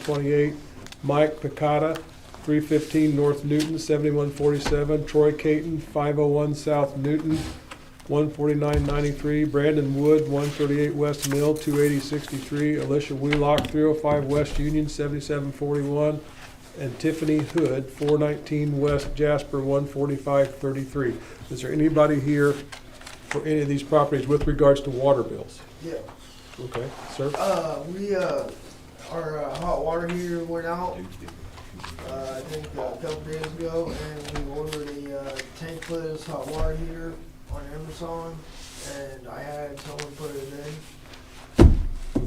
twenty-eight. Mike Picata, three fifteen North Newton, seventy-one forty-seven. Troy Caton, five oh one South Newton, one forty-nine ninety-three. Brandon Wood, one thirty-eight West Mill, two eighty sixty-three. Alicia Wheelock, three oh five West Union, seventy-seven forty-one. And Tiffany Hood, four nineteen West Jasper, one forty-five thirty-three. Is there anybody here for any of these properties with regards to water bills? Yeah, Okay, sir? uh, we, uh, our uh, hot water heater went out, uh, I think uh, a couple days ago, and we ordered a, uh, tankless hot water heater on Amazon, and I had someone put it in.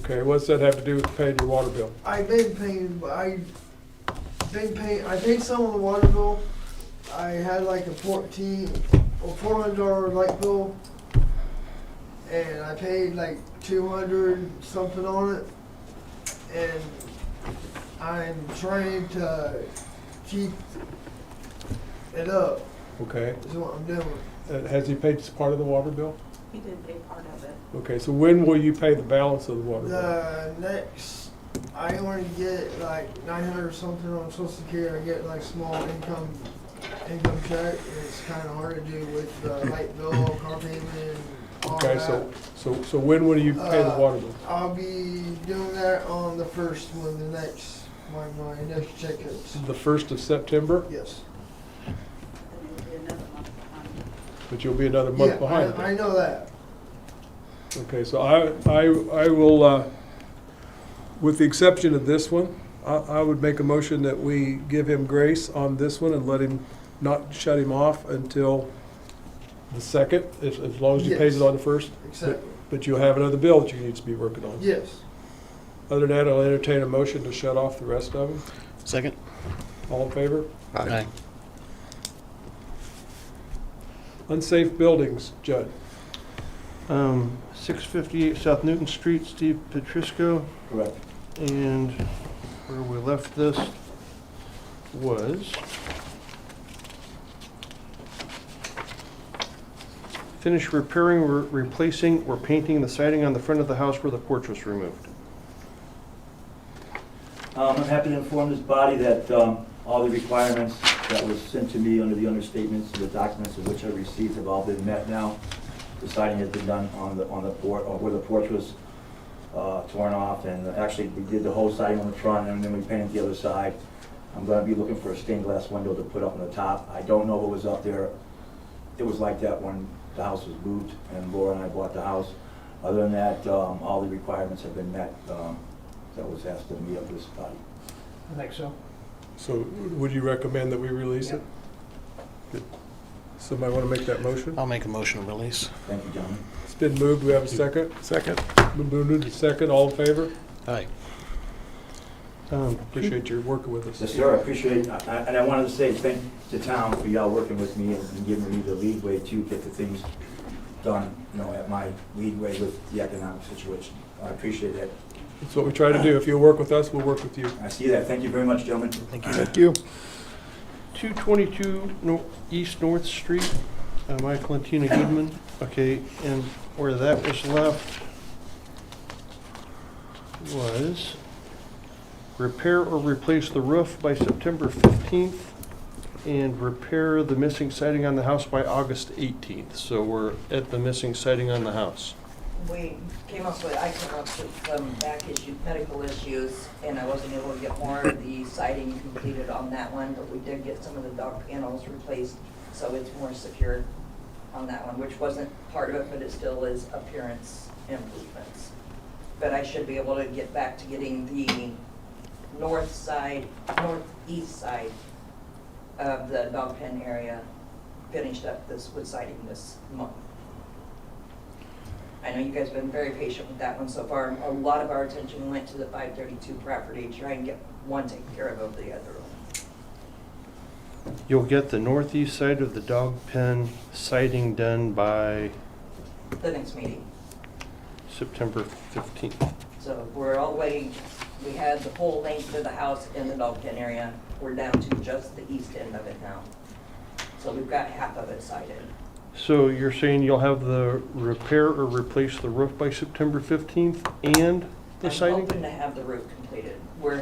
Okay, what's that have to do with paying your water bill? I've been paying, I, been paying, I paid some on the water bill, I had like a fourteen, or four hundred dollar light bill, and I paid like two hundred something on it, and I'm trying to keep it up, Okay, is what I'm doing. uh, has he paid part of the water bill? He did a part of it. Okay, so when will you pay the balance of the water bill? The next, I only get like nine hundred or something on social security, I get like small income, income check, and it's kinda hard to do with the light bill, car payment, and all Okay, that. so, so, so when will you pay the Uh, water bill? I'll be doing that on the first one, the next, my, my next check is, The first of September, yes. And it would be another month behind. but you'll be another Yeah, month behind. I, I then. know that, Okay, so I, I, I will, uh, with the exception of this one, I, I would make a motion that we give him grace on this one and let him, not shut him off until the second, as, as long as he pays it Yes. on the first. exactly, But you'll have another bill that you need to be working on. yes. Other than that, I'll entertain a motion to shut off the rest of them. Second? All in favor? Aye. Unsafe buildings, Judd. Um, 658 South Newton Street, Steve Petrisco. Correct. And where we left this was finish repairing, re- replacing, or painting the siding on the front of the house where the porch was removed. Um, I'm happy to inform this body that um, all the requirements that was sent to me under the understatements, the documents of which I received have all been met now. The siding has been done on the, on the porch, or where the porch was uh, torn off, and actually, we did the whole siding on the front, and then we painted the other side. I'm gonna be looking for a stained glass window to put up on the top. I don't know what was up there. It was like that when the house was moved, and Laura and I bought the house. Other than that, um, all the requirements have been met um, that was asked of me of this body. I think so. So would you recommend that we release it? Good. Somebody want to make that motion? I'll make a motion to release. Thank you, gentlemen. It's been moved. We have a second. Second. Been moved to second. All in favor? Aye. Um, Appreciate your working with us. Yes, sir, I appreciate, I- I- and I wanted to say thank the town for y'all working with me and giving me the leadway to get the things done, you know, at my leadway with the economic situation. I appreciate that. That's what we try to do. If you'll work with us, we'll work with you. I see that. Thank you very much, gentlemen. Thank you. Thank you. 222 Nor- East North Street, uh, Michael and Tina Goodman. Okay, and where that was left was repair or replace the roof by September 15th and repair the missing siding on the house by August 18th. So we're at the missing siding on the house. We came up with, I came up with some back issue, medical issues, and I wasn't able to get more of the siding completed on that one, but we did get some of the dock panels replaced, so it's more secure on that one, which wasn't part of it, but it still is appearance improvements. But I should be able to get back to getting the north side, northeast side of the dog pen area finished up this, with siding this month. I know you guys have been very patient with that one so far. A lot of our attention went to the 532 property, to try and get one taken care of over the other one. You'll get the northeast side of the dog pen siding done by The next meeting. September 15th. So we're all the way, we had the full length of the house in the dog pen area. We're down to just the east end of it now. So we've got half of it sided. So you're saying you'll have the repair or replace the roof by September 15th and the I'm siding? hoping to have the roof completed. We're